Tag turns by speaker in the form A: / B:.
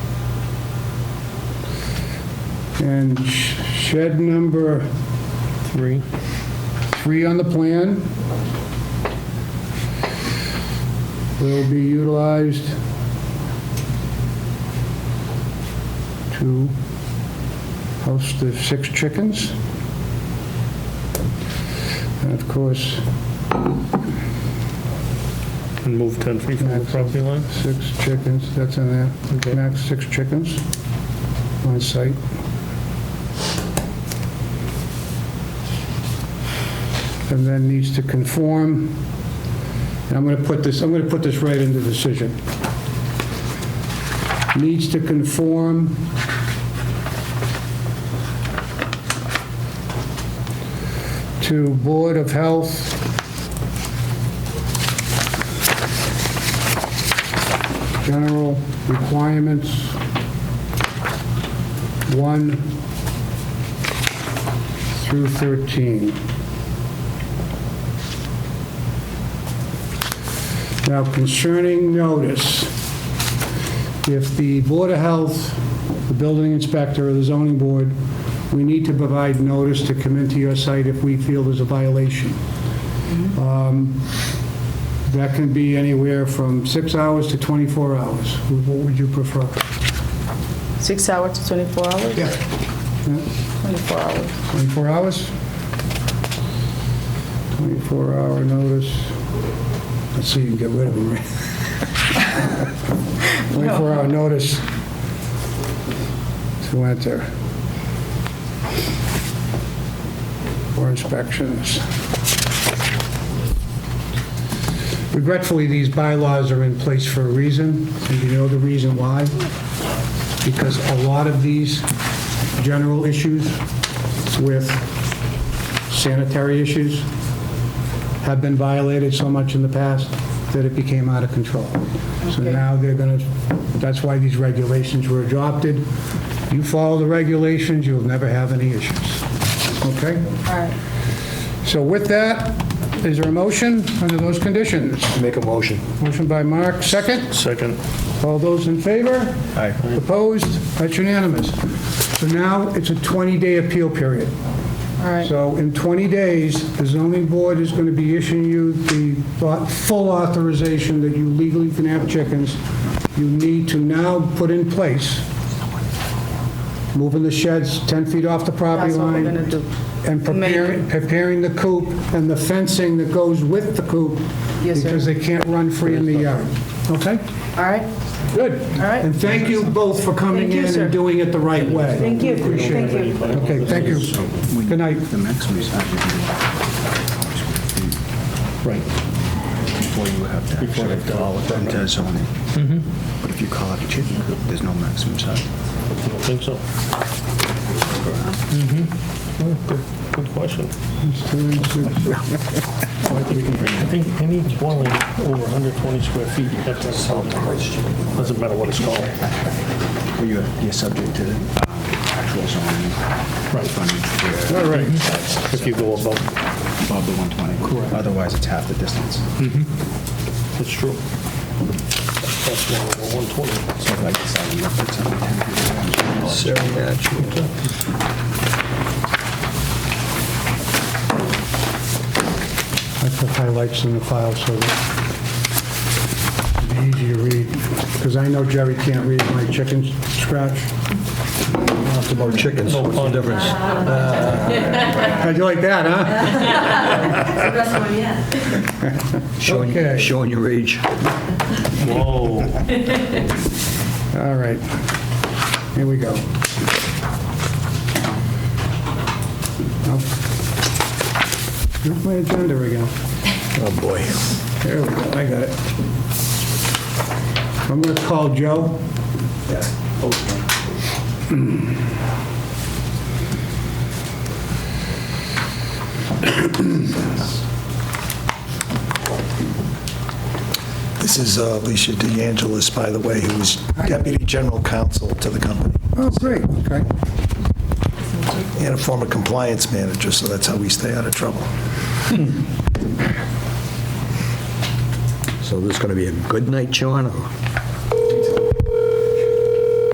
A: And sh- shed number
B: Three.
A: three on the plan will be utilized to host the six chickens. And of course,
B: And move 10 feet from the property line?
A: Six chickens, that's in there,
B: Okay.
A: max six chickens on site. And then needs to conform, and I'm gonna put this, I'm gonna put this right in the decision. Needs to conform to Board of Health general requirements, one through 13. Now concerning notice, if the Board of Health, the building inspector, or the zoning board, we need to provide notice to come into your site if we feel there's a violation. That can be anywhere from six hours to 24 hours. What would you prefer?
C: Six hours to 24 hours?
A: Yeah.
C: 24 hours.
A: 24 hours? 24-hour notice. Let's see, you can get rid of them, right? 24-hour notice to enter. For inspections. Regretfully, these bylaws are in place for a reason, and you know the reason why? Because a lot of these general issues with sanitary issues have been violated so much in the past that it became out of control. So now they're going to, that's why these regulations were adopted. You follow the regulations, you'll never have any issues. Okay?
C: All right.
A: So with that, is there a motion under those conditions?
D: Make a motion.
A: Motion by Mark, second.
B: Second.
A: All those in favor?
D: Aye.
A: Opposed? That's unanimous. So now it's a 20-day appeal period.
C: All right.
A: So in 20 days, the zoning board is going to be issuing you the au- full authorization that you legally can have chickens. You need to now put in place, moving the sheds 10 feet off the property
C: That's what we're
A: line.
C: gonna do.
A: And preparing, preparing the coop and the fencing that goes with the coop.
C: Yes, sir.
A: Because they can't run free in the yard. Okay?
C: All right.
A: Good.
C: All right.
A: And thank you both for coming
C: Thank you,
A: in
C: sir.
A: and doing it the right way.
C: Thank you. Thank you.
A: Okay, thank you. Good night.
E: The maximum is 500.
B: Right.
E: Before you have to
B: Before
E: actually
B: they've done all of that.
E: them to zone it.
B: Mm-hmm.
E: But if you call it a chicken coop, there's no maximum
B: I
E: size.
B: don't think so. Mm-hmm. Oh, Good, good question. I think any dwelling over 120 square feet, you have to have something. Doesn't matter what it's called.
E: Well, you're, you're subject to the actual zoning.
B: Right.
E: Frontage where
B: All right. If you go above,
E: above the 120. Correct. Otherwise, it's half the distance.
B: that's true. That's one over 120.
E: So if I decide to put something 10 feet away,
A: I put highlights in the file so that it'd be easy to read, because I know Jerry can't read my chicken scratch.
D: It's about chickens.
B: No
D: What's the
B: pun.
D: difference?
A: How'd you like that, huh? Okay.
E: showing, showing your age.
B: Whoa.
A: All right. Here we go. Oh. Where's my agenda again?
D: Oh, boy.
A: There we go, I got it. I'm going to call Joe.
F: This is uh, Alicia DeAngelis, by the way, who is Deputy General Counsel to the company
A: Oh, great, okay.
F: and a former compliance manager, so that's how we stay out of trouble.
D: So this is going to be a good night, John, or